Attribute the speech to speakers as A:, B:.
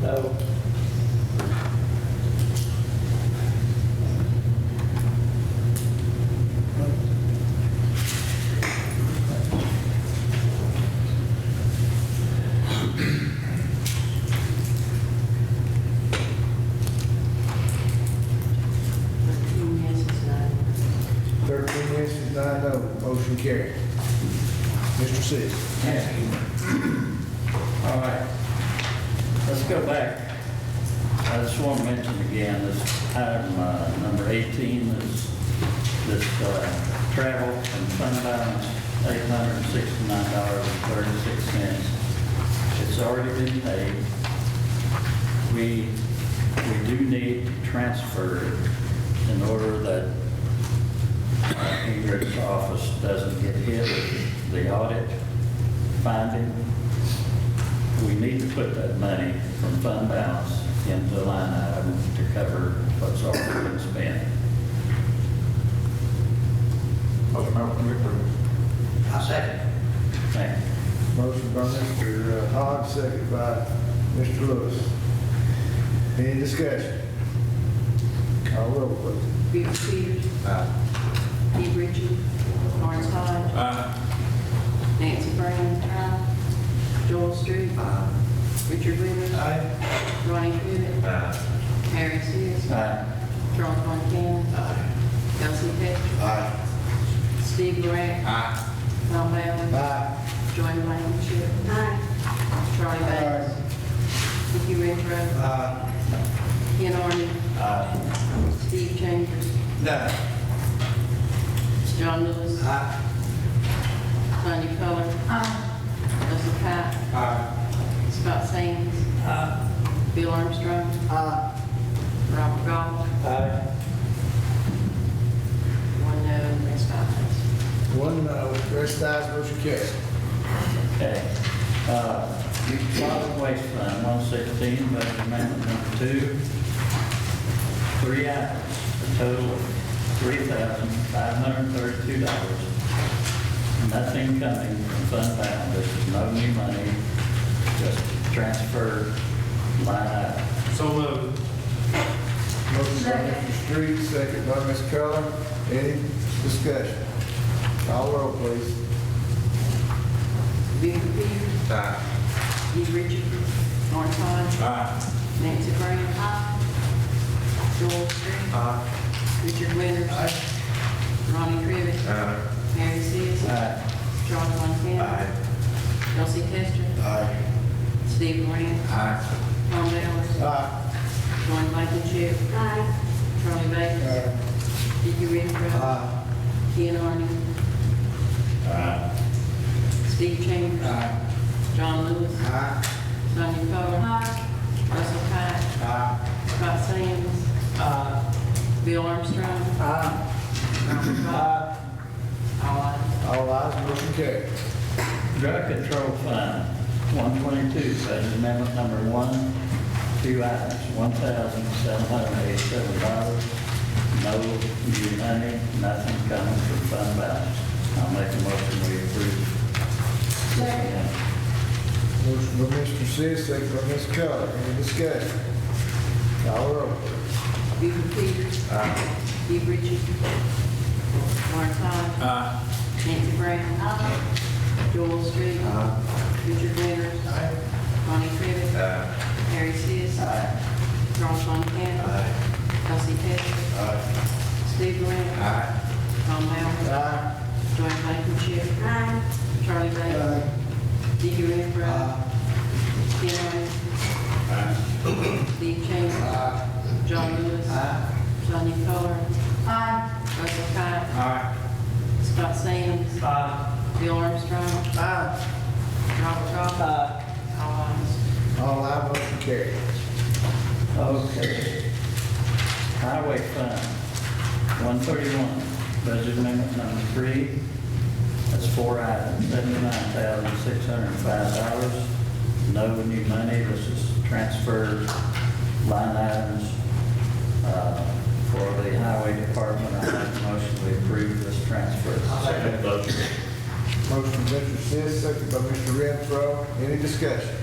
A: so.
B: Thirteen yeses, nine.
C: 13 yeses, nine no. Motion carried. Mr. Sis.
A: All right, let's go back. I just want to mention again, this item uh, number 18 is this uh, travel and fund balance, $869.36. It's already been paid. We, we do need to transfer it in order that uh, Ingrid's office doesn't get hit with the audit finding. We need to put that money from fund balance into the line item to cover what's already been spent.
D: Motion by Commissioner
B: I'll second.
A: Thank you.
C: Motion by Mr. Hogg, second by Mr. Lewis. Any discussion? Call roll, please.
B: Bill Peters. Keith Richards. Lawrence Todd. Nancy Brown. Joel Street. Richard Winters. Ronnie Crivitt. Harry Seas.
A: Aye.
B: Charles Von Cannon. Elsie Pettit. Steve Lorette. Tom Allen.
C: Aye.
B: Joanne Blankenship. Charlie Banks. Ricky Renfro. Ken Arden. Steve Chambers. John Lewis. Sonia Coler. Russell Cott. Scott Sands. Bill Armstrong. Robert Goff. One no, and that's five ayes.
C: One no. Rest eyes, motion carried.
A: Okay. Uh, Solid Waste Fund, 116, budget amendment number two. Three items, a total of $3,532. Nothing coming from fund balance, this is no new money, just transfer line item.
D: So moved.
C: Motion by Mr. Street, second by Ms. Keller. Any discussion? Call roll, please.
B: Bill Peters. Keith Richards. Lawrence Todd. Nancy Brown. Joel Street. Richard Winters. Ronnie Crivitt. Mary Sis.
A: Aye.
B: Charles Von Cannon. Elsie Testor. Steve Grant. Tom Allen.
C: Aye.
B: Joanne Blankenship. Charlie Bates. Dickie Redrow.
C: Aye.
B: Ken Arden. Steve Chambers.
C: Aye.
B: John Lewis.
C: Aye.
B: Sonia Coler. Russell Cott. Scott Sands. Bill Armstrong. Robert Goff. All ayes.
C: All ayes, motion carried.
A: Drug Control Fund, 122, budget amendment number one, two items, $1,787. No new money, nothing coming from fund balance. I'll make a motion we approve. Yeah.
C: Motion by Mr. Sis, second by Ms. Keller. Any discussion? Call roll.
B: Buford Peters. Keith Richards. Lawrence Todd. Nancy Brown. Joel Street. Richard Winters. Ronnie Crivitt. Harry Seas. Charles Von Cannon. Elsie Testor. Steve Grant. Tom Allen.
C: Aye.
B: Joanne Blankenship. Charlie Bates. Dickie Redrow. Ken Arden. Steve Chambers. John Lewis. Sonia Coler. Russell Cott. Scott Sands. Bill Armstrong. Robert Goff. All ayes.
C: All ayes, motion carried.
A: Okay. Highway Fund, 131, budget amendment number three, that's four items, $79,605. No new money, this is transfer line items uh, for the Highway Department. I make a motion we approve this transfer.
D: Second motion.
C: Motion by Mr. Sis, second by Mr. Renfro. Any discussion?